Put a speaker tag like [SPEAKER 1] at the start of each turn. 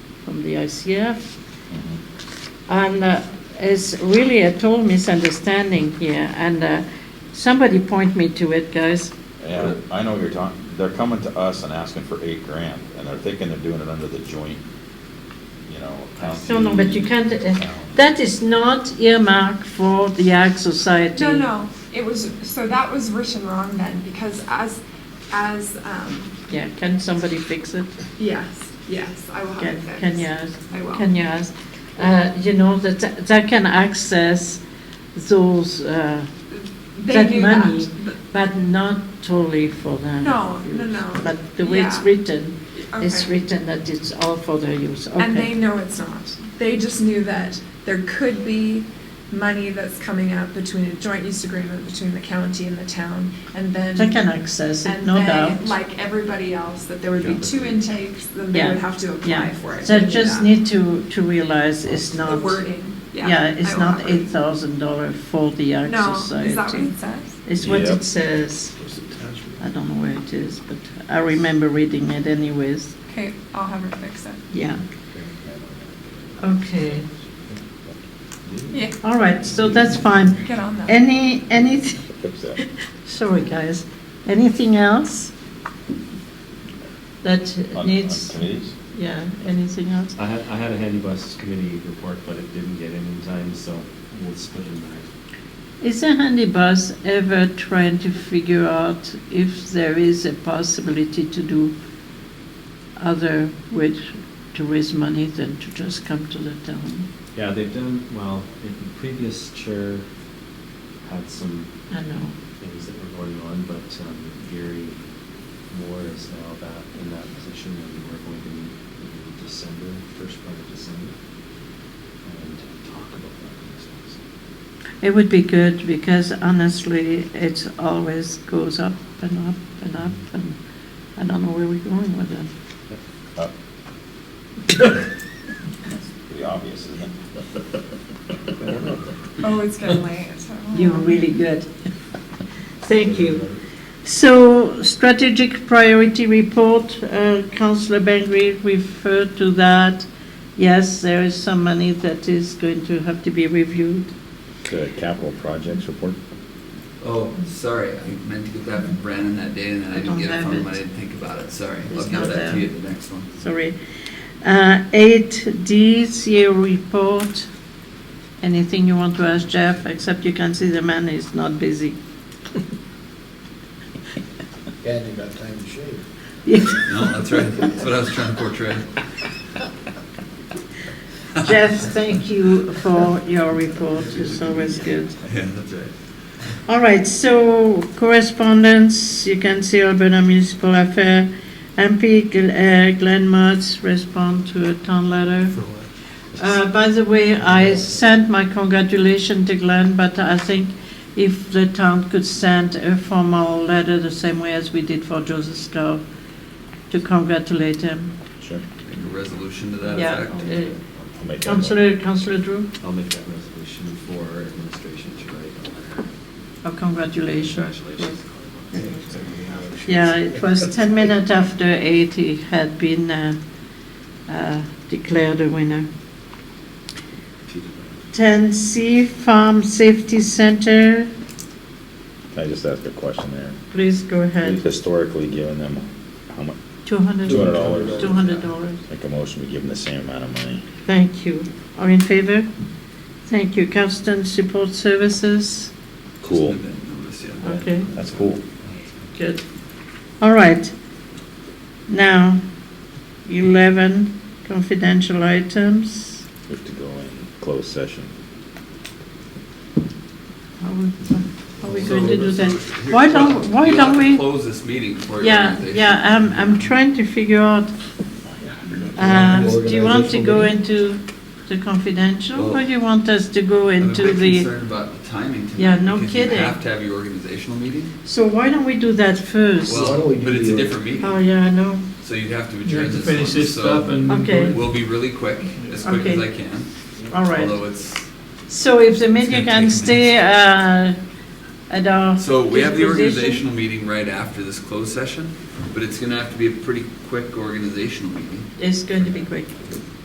[SPEAKER 1] from the ICF.
[SPEAKER 2] Mm-hmm.
[SPEAKER 1] And uh, it's really a total misunderstanding here, and uh, somebody point me to it, guys.
[SPEAKER 2] And I know what you're talking, they're coming to us and asking for eight grand, and they're thinking they're doing it under the joint, you know, county.
[SPEAKER 1] No, no, but you can't, uh,
[SPEAKER 2] town.
[SPEAKER 1] that is not earmarked for the Ag Society.
[SPEAKER 3] No, no, it was, so that was written wrong then, because as, as, um,
[SPEAKER 1] Yeah, can somebody fix it?
[SPEAKER 3] yes, yes, I will have
[SPEAKER 1] Can
[SPEAKER 3] it fixed.
[SPEAKER 1] can you ask?
[SPEAKER 3] I will.
[SPEAKER 1] Can you ask? Uh, You know, that, that can access those, uh,
[SPEAKER 3] They
[SPEAKER 1] that
[SPEAKER 3] knew
[SPEAKER 1] money,
[SPEAKER 3] that. but-
[SPEAKER 1] but not totally for them.
[SPEAKER 3] No, no, no.
[SPEAKER 1] But the way it's
[SPEAKER 3] Yeah.
[SPEAKER 1] written, it's
[SPEAKER 3] Okay.
[SPEAKER 1] written that it's all for their use,
[SPEAKER 3] And they
[SPEAKER 1] okay.
[SPEAKER 3] know it's not. They just knew that there could be money that's coming up between a joint use agreement between the county and the town, and then.
[SPEAKER 1] They can access it,
[SPEAKER 3] And
[SPEAKER 1] no
[SPEAKER 3] then,
[SPEAKER 1] doubt.
[SPEAKER 3] like everybody else, that there would be two intakes, then they
[SPEAKER 1] Yeah.
[SPEAKER 3] would have to apply
[SPEAKER 1] Yeah,
[SPEAKER 3] for it.
[SPEAKER 1] so
[SPEAKER 3] They knew
[SPEAKER 1] just
[SPEAKER 3] that.
[SPEAKER 1] need to, to realize it's
[SPEAKER 3] The
[SPEAKER 1] not,
[SPEAKER 3] wording, yeah.
[SPEAKER 1] yeah,
[SPEAKER 3] I
[SPEAKER 1] it's
[SPEAKER 3] will
[SPEAKER 1] not
[SPEAKER 3] have it.
[SPEAKER 1] eight thousand dollar for the Ag
[SPEAKER 3] No, is that what
[SPEAKER 1] Society.
[SPEAKER 3] it says?
[SPEAKER 1] It's what
[SPEAKER 2] Yep.
[SPEAKER 1] it says.
[SPEAKER 4] What's the tax rate?
[SPEAKER 1] I don't know where it is, but I remember reading it anyways,
[SPEAKER 3] Okay, I'll have her fix it.
[SPEAKER 1] yeah. Okay,
[SPEAKER 3] Yeah,
[SPEAKER 1] all right, so that's fine.
[SPEAKER 3] get on that.
[SPEAKER 1] Any, anything,
[SPEAKER 2] Fix that.
[SPEAKER 1] sorry guys, anything else that
[SPEAKER 2] On- on
[SPEAKER 1] needs,
[SPEAKER 2] Committees?
[SPEAKER 1] yeah, anything else?
[SPEAKER 5] I had, I had a handy buses committee report, but it didn't get in in time, so we'll split it back.
[SPEAKER 1] Is a handy bus ever trying to figure out if there is a possibility to do other ways to raise money than to just come to the town?
[SPEAKER 5] Yeah, they've done, well, the the previous chair had some
[SPEAKER 1] I know.
[SPEAKER 5] things that were going on, but um, Gary Moore is now back in that position, and we're going to meet in December, first part of December, and talk about that. kind of stuff.
[SPEAKER 1] It would be good because honestly, it always goes up and up and up and I don't know where we're going with it.
[SPEAKER 2] Up. That's Uh, Pretty obvious, isn't it?
[SPEAKER 3] Oh, it's getting late, so.
[SPEAKER 1] You're really good. Thank you. So strategic priority report, uh, Councillor Bengry referred to that. Yes, there is some money that is going to have to be reviewed.
[SPEAKER 2] The capital projects report?
[SPEAKER 6] Oh, sorry, I meant to get that from Brandon that day, and then I
[SPEAKER 1] I
[SPEAKER 6] didn't
[SPEAKER 1] don't
[SPEAKER 6] get it
[SPEAKER 1] have
[SPEAKER 6] from him,
[SPEAKER 1] it.
[SPEAKER 6] I didn't think about it, sorry.
[SPEAKER 1] It's
[SPEAKER 6] I'll
[SPEAKER 1] not
[SPEAKER 6] give that
[SPEAKER 1] there.
[SPEAKER 6] to you at the next one.
[SPEAKER 1] Sorry. Uh, Eight D, CEO report. Anything you want to ask Jeff, except you can see the man is not busy.
[SPEAKER 4] And you got time to shave.
[SPEAKER 6] No, that's right, that's what I was trying to portray.
[SPEAKER 1] Jeff, thank you for your report, it's always good.
[SPEAKER 6] Yeah, that's right.
[SPEAKER 1] All right, so correspondence, you can see Alberta Municipal Affair, MP Gl- uh, Glenn Motz respond to a town letter.
[SPEAKER 4] For what?
[SPEAKER 1] Uh, By the way, I sent my congratulations to Glenn, but I think if the town could send a formal letter the same way as we did for Joseph Stowe to congratulate him.
[SPEAKER 2] Sure.
[SPEAKER 6] Make a resolution to that
[SPEAKER 1] Yeah,
[SPEAKER 6] effect.
[SPEAKER 2] I'll make that one.
[SPEAKER 1] Councillor, Councillor Drew,
[SPEAKER 5] I'll make that resolution for administration to write a letter.
[SPEAKER 1] oh, congratulations.
[SPEAKER 5] Congratulations.
[SPEAKER 1] Yeah, it was 10 minutes after 8 he had been uh, uh, declared a winner. 10C Farm Safety Center,
[SPEAKER 2] Can I just ask a question there?
[SPEAKER 1] please go
[SPEAKER 2] We've
[SPEAKER 1] ahead.
[SPEAKER 2] historically given them, how much,
[SPEAKER 1] $200.
[SPEAKER 2] $200.
[SPEAKER 1] $200.
[SPEAKER 2] make a motion, we give them the same amount of money.
[SPEAKER 1] Thank you. Are in favor? Thank you. Constant Support Services?
[SPEAKER 6] Just
[SPEAKER 2] Cool,
[SPEAKER 6] an event notice, yeah.
[SPEAKER 1] Okay,
[SPEAKER 2] that's cool.
[SPEAKER 1] good. All right. Now, 11 confidential items.
[SPEAKER 2] We have to go in closed session.
[SPEAKER 1] How we- how we going to do that?
[SPEAKER 6] Here,
[SPEAKER 1] Why don't, why
[SPEAKER 6] you'll have
[SPEAKER 1] don't
[SPEAKER 6] to
[SPEAKER 1] we?
[SPEAKER 6] Close this meeting before your
[SPEAKER 1] Yeah,
[SPEAKER 6] organization.
[SPEAKER 1] yeah, I'm, I'm trying to figure out, um, do you want to go into the confidential? Or
[SPEAKER 6] Well-
[SPEAKER 1] you want us to go
[SPEAKER 6] I'm a
[SPEAKER 1] into
[SPEAKER 6] bit
[SPEAKER 1] the?
[SPEAKER 6] concerned about the timing tonight.
[SPEAKER 1] Yeah, no
[SPEAKER 6] because
[SPEAKER 1] kidding.
[SPEAKER 6] you have to have your organizational meeting.
[SPEAKER 1] So why don't we do that first?
[SPEAKER 4] why don't
[SPEAKER 6] Well,
[SPEAKER 4] we do
[SPEAKER 6] but it's a
[SPEAKER 4] the-
[SPEAKER 6] different meeting,
[SPEAKER 1] Oh, yeah, I know.
[SPEAKER 6] so you'd have to
[SPEAKER 7] You
[SPEAKER 6] adjourn
[SPEAKER 7] have to
[SPEAKER 6] this
[SPEAKER 7] finish
[SPEAKER 6] one,
[SPEAKER 7] this up
[SPEAKER 6] so
[SPEAKER 7] and.
[SPEAKER 1] Okay.
[SPEAKER 6] we'll be really quick, as quick as
[SPEAKER 1] Okay.
[SPEAKER 6] I can.
[SPEAKER 1] All right.
[SPEAKER 6] Although it's
[SPEAKER 1] So if the
[SPEAKER 6] It's
[SPEAKER 1] media
[SPEAKER 6] gonna
[SPEAKER 1] can
[SPEAKER 6] take
[SPEAKER 1] stay uh, at our.
[SPEAKER 6] So we have the
[SPEAKER 1] disposition.
[SPEAKER 6] organizational meeting right after this closed session, but it's gonna have to be a pretty quick organizational meeting.
[SPEAKER 1] It's going to be great.